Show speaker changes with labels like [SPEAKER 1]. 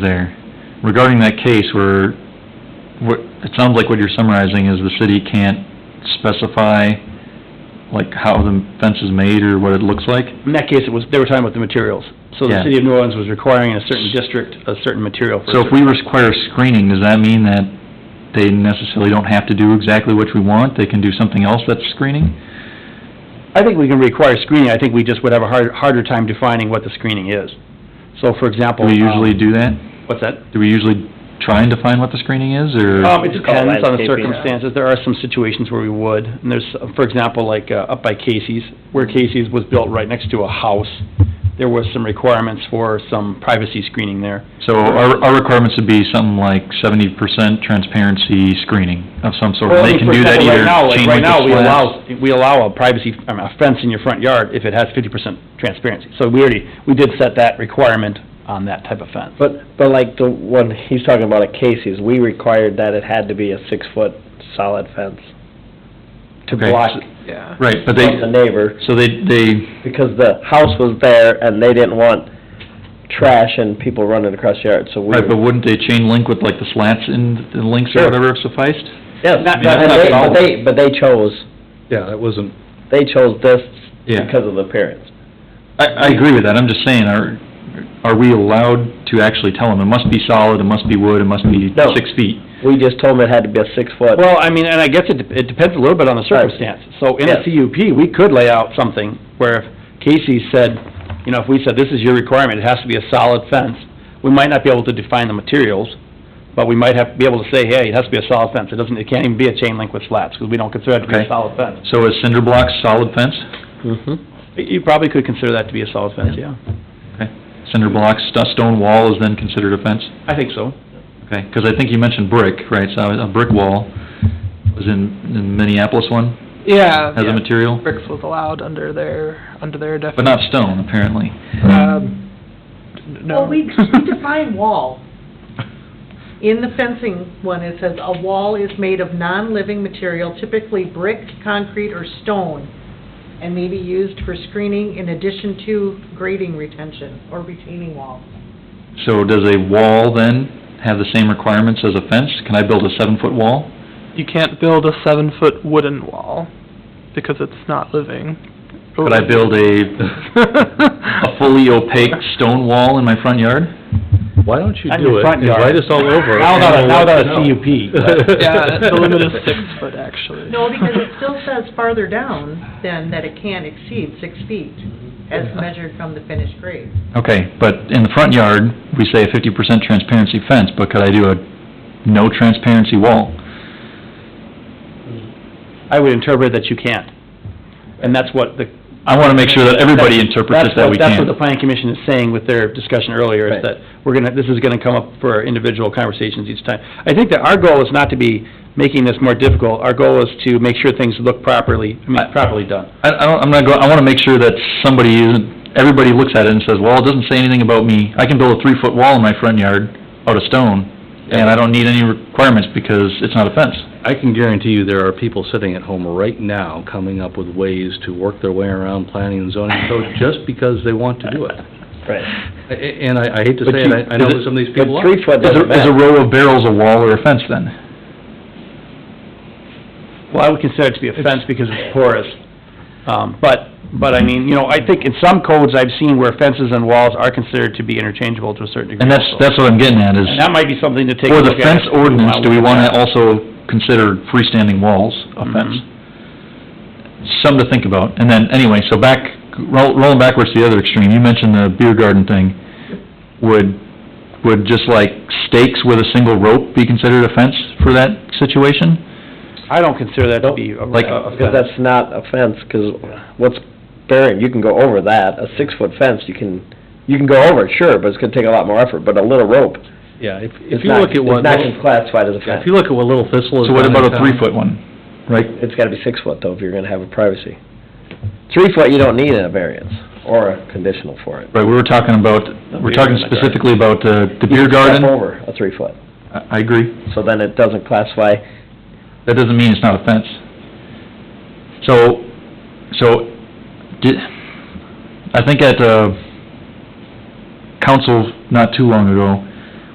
[SPEAKER 1] there. Regarding that case where, what, it sounds like what you're summarizing is the city can't specify, like, how the fence is made or what it looks like?
[SPEAKER 2] In that case, it was, they were talking about the materials. So the
[SPEAKER 1] Yeah.
[SPEAKER 2] city of New Orleans was requiring in a certain district, a certain material for a
[SPEAKER 1] So if we
[SPEAKER 2] certain-
[SPEAKER 1] require screening, does that mean that they necessarily don't have to do exactly what we want? They can do something else that's screening?
[SPEAKER 2] I think we can require screening, I think we just would have a hard, harder time defining what the screening is. So for
[SPEAKER 1] Do
[SPEAKER 2] example.
[SPEAKER 1] we
[SPEAKER 2] um,
[SPEAKER 1] usually do that?
[SPEAKER 2] What's that?
[SPEAKER 1] Do we usually try and define what the screening is, or?
[SPEAKER 2] Um, it
[SPEAKER 3] It's called
[SPEAKER 2] depends on the
[SPEAKER 3] landscaping.
[SPEAKER 2] circumstances, there are some situations where we would, and there's, uh, for example, like, uh, up by Casey's, where Casey's was built right next to a house, there was some requirements for some privacy screening there.
[SPEAKER 1] So our, our requirements would be something like seventy percent transparency screening of some sort.
[SPEAKER 2] Well, I
[SPEAKER 1] They
[SPEAKER 2] mean,
[SPEAKER 1] can
[SPEAKER 2] for
[SPEAKER 1] do that
[SPEAKER 2] example,
[SPEAKER 1] either
[SPEAKER 2] right now, like,
[SPEAKER 1] chain
[SPEAKER 2] Right
[SPEAKER 1] link
[SPEAKER 2] now,
[SPEAKER 1] or
[SPEAKER 2] we
[SPEAKER 1] slats.
[SPEAKER 2] allow, we allow a privacy, I mean, a fence in your front yard if it has fifty percent transparency. So we already, we did set that requirement on that type of fence.
[SPEAKER 3] But, but like the one, he's talking about at Casey's, we required that it had to be a six-foot solid fence to
[SPEAKER 1] Okay,
[SPEAKER 3] block
[SPEAKER 1] so-
[SPEAKER 4] Yeah.
[SPEAKER 1] Right, but they,
[SPEAKER 3] from the neighbor,
[SPEAKER 1] so they, they,
[SPEAKER 3] because the house was there and they didn't want trash and people running across the yard, so we.
[SPEAKER 1] right, but wouldn't they chain link with like the slats and the links or
[SPEAKER 3] Sure.
[SPEAKER 1] whatever sufficed?
[SPEAKER 3] Yes,
[SPEAKER 2] Not- not-
[SPEAKER 3] and they-
[SPEAKER 2] not-
[SPEAKER 3] but they, but they chose,
[SPEAKER 5] Yeah, that wasn't,
[SPEAKER 3] they chose this
[SPEAKER 1] Yeah.
[SPEAKER 3] because of the appearance.
[SPEAKER 1] I, I agree with that, I'm just saying, are, are we allowed to actually tell them, it must be solid, it must be wood, it must be
[SPEAKER 3] No.
[SPEAKER 1] six feet?
[SPEAKER 3] We just told them it had to be a six-foot.
[SPEAKER 2] Well, I mean, and I guess it, dep- it depends a little bit on the
[SPEAKER 3] Right.
[SPEAKER 2] circumstance. So in a
[SPEAKER 3] Yes.
[SPEAKER 2] CUP, we could lay out something where if Casey said, you know, if we said, this is your requirement, it has to be a solid fence, we might not be able to define the materials, but we might have, be able to say, hey, it has to be a solid fence. It doesn't, it can't even be a chain link with slats, because we don't consider that to be
[SPEAKER 1] Okay.
[SPEAKER 2] a solid fence.
[SPEAKER 1] So is cinder blocks solid fence?
[SPEAKER 3] Mhm.
[SPEAKER 2] You probably could consider that to be a solid fence, yeah.
[SPEAKER 1] Okay, cinder blocks, st- stone wall is then considered a fence?
[SPEAKER 2] I think so.
[SPEAKER 1] Okay, because I think you mentioned brick, right, so a brick wall was in in Minneapolis one,
[SPEAKER 4] Yeah.
[SPEAKER 1] as a
[SPEAKER 4] yeah.
[SPEAKER 1] material?
[SPEAKER 4] Bricks was allowed under their, under their
[SPEAKER 1] But
[SPEAKER 4] definition.
[SPEAKER 1] not stone, apparently.
[SPEAKER 4] Um, n- no.
[SPEAKER 6] Well, we, we define wall. In the fencing one, it says, "A wall is made of non-living material, typically brick, concrete, or stone, and may be used for screening in addition to grading retention or retaining wall."
[SPEAKER 1] So does a wall then have the same requirements as a fence? Can I build a seven-foot wall?
[SPEAKER 4] You can't build a seven-foot wooden wall, because it's not living.
[SPEAKER 1] Could I build a, a fully opaque stone wall in my front yard?
[SPEAKER 5] why don't you
[SPEAKER 2] On
[SPEAKER 5] do
[SPEAKER 2] your
[SPEAKER 5] it?
[SPEAKER 2] front yard.
[SPEAKER 5] Invite us all over.
[SPEAKER 2] Now
[SPEAKER 5] and
[SPEAKER 2] without a-
[SPEAKER 5] we'll
[SPEAKER 2] now
[SPEAKER 5] let
[SPEAKER 2] without
[SPEAKER 5] you
[SPEAKER 2] a
[SPEAKER 5] know.
[SPEAKER 2] CUP, but-
[SPEAKER 4] Yeah, the limit is six foot, actually.
[SPEAKER 6] No, because it still says farther down than that it can't exceed six feet as measured from the finished grade.
[SPEAKER 1] Okay, but in the front yard, we say a fifty percent transparency fence, but could I do a no transparency wall?
[SPEAKER 2] I would interpret that you can't. And that's what the.
[SPEAKER 1] I want to make sure that everybody interprets this that
[SPEAKER 2] That's
[SPEAKER 1] we
[SPEAKER 2] what- That's what the
[SPEAKER 1] can.
[SPEAKER 2] planning commission is saying with their discussion earlier, is
[SPEAKER 3] Right.
[SPEAKER 2] that we're gonna, this is gonna come up for our individual conversations each time. I think that our goal is not to be making this more difficult, our goal is to make sure things look properly, I
[SPEAKER 1] I-
[SPEAKER 2] mean, properly done.
[SPEAKER 1] I, I don't, I'm not go, I want to make sure that somebody isn't, everybody looks at it and says, well, it doesn't say anything about me. I can build a three-foot wall in my front yard out of stone, and I don't need any requirements because it's not a fence.
[SPEAKER 5] I can guarantee you there are people sitting at home right now coming up with ways to work their way around planning and zoning code just because they want to do it.
[SPEAKER 3] Right.
[SPEAKER 5] I- And I I hate to
[SPEAKER 1] But
[SPEAKER 5] say
[SPEAKER 1] you-
[SPEAKER 5] it, I I know
[SPEAKER 1] is
[SPEAKER 5] that
[SPEAKER 1] it-
[SPEAKER 5] some of these
[SPEAKER 3] But
[SPEAKER 5] people are.
[SPEAKER 3] three-foot
[SPEAKER 1] Is a,
[SPEAKER 3] doesn't
[SPEAKER 1] is a
[SPEAKER 3] matter.
[SPEAKER 1] row of barrels a wall or a fence then?
[SPEAKER 2] Well, I would consider it to be a fence because it's porous. Um, but, but I mean, you know, I think in some codes I've seen where fences and walls are considered to be interchangeable to a certain degree.
[SPEAKER 1] And that's,
[SPEAKER 2] also.
[SPEAKER 1] that's what I'm getting at is,
[SPEAKER 2] And that might be something to take a
[SPEAKER 1] for the
[SPEAKER 2] look at.
[SPEAKER 1] fence
[SPEAKER 2] if we
[SPEAKER 1] ordinance, do we
[SPEAKER 2] look
[SPEAKER 1] want
[SPEAKER 2] at
[SPEAKER 1] to also consider freestanding walls a
[SPEAKER 2] Mhm.
[SPEAKER 1] fence? Something to think about. And then, anyway, so back, roll- rolling backwards to the other extreme, you mentioned the beer garden thing. Would, would just like stakes with a single rope be considered a fence for that situation?
[SPEAKER 2] I don't consider that to be a
[SPEAKER 1] Like-
[SPEAKER 2] a-
[SPEAKER 5] uh,
[SPEAKER 2] a
[SPEAKER 3] Uh, Because
[SPEAKER 2] fence.
[SPEAKER 3] that's not a fence, because what's buried, you can go over that, a six-foot fence, you can, you can go over it, sure, but it's gonna take a lot more effort, but a little rope,
[SPEAKER 5] Yeah, if if
[SPEAKER 3] it's
[SPEAKER 5] you
[SPEAKER 3] not,
[SPEAKER 5] look
[SPEAKER 3] it's
[SPEAKER 5] at what,
[SPEAKER 3] not gonna
[SPEAKER 5] yeah,
[SPEAKER 3] be classified as a
[SPEAKER 5] if
[SPEAKER 3] fence.
[SPEAKER 5] you look at what Little Thistle is.
[SPEAKER 1] So what about a three-foot one, right?
[SPEAKER 3] It's gotta be six-foot though, if you're gonna have a privacy. Three-foot, you don't need a variance, or a conditional for it.
[SPEAKER 1] Right, we were talking about, we're talking
[SPEAKER 2] garden.
[SPEAKER 1] specifically about uh, the
[SPEAKER 3] You
[SPEAKER 1] beer
[SPEAKER 3] can step
[SPEAKER 1] garden.
[SPEAKER 3] over a three-foot,
[SPEAKER 1] I I agree.
[SPEAKER 3] so then it doesn't classify,
[SPEAKER 1] That doesn't mean it's not a fence. So, so, did, I think at, uh, council not too long ago,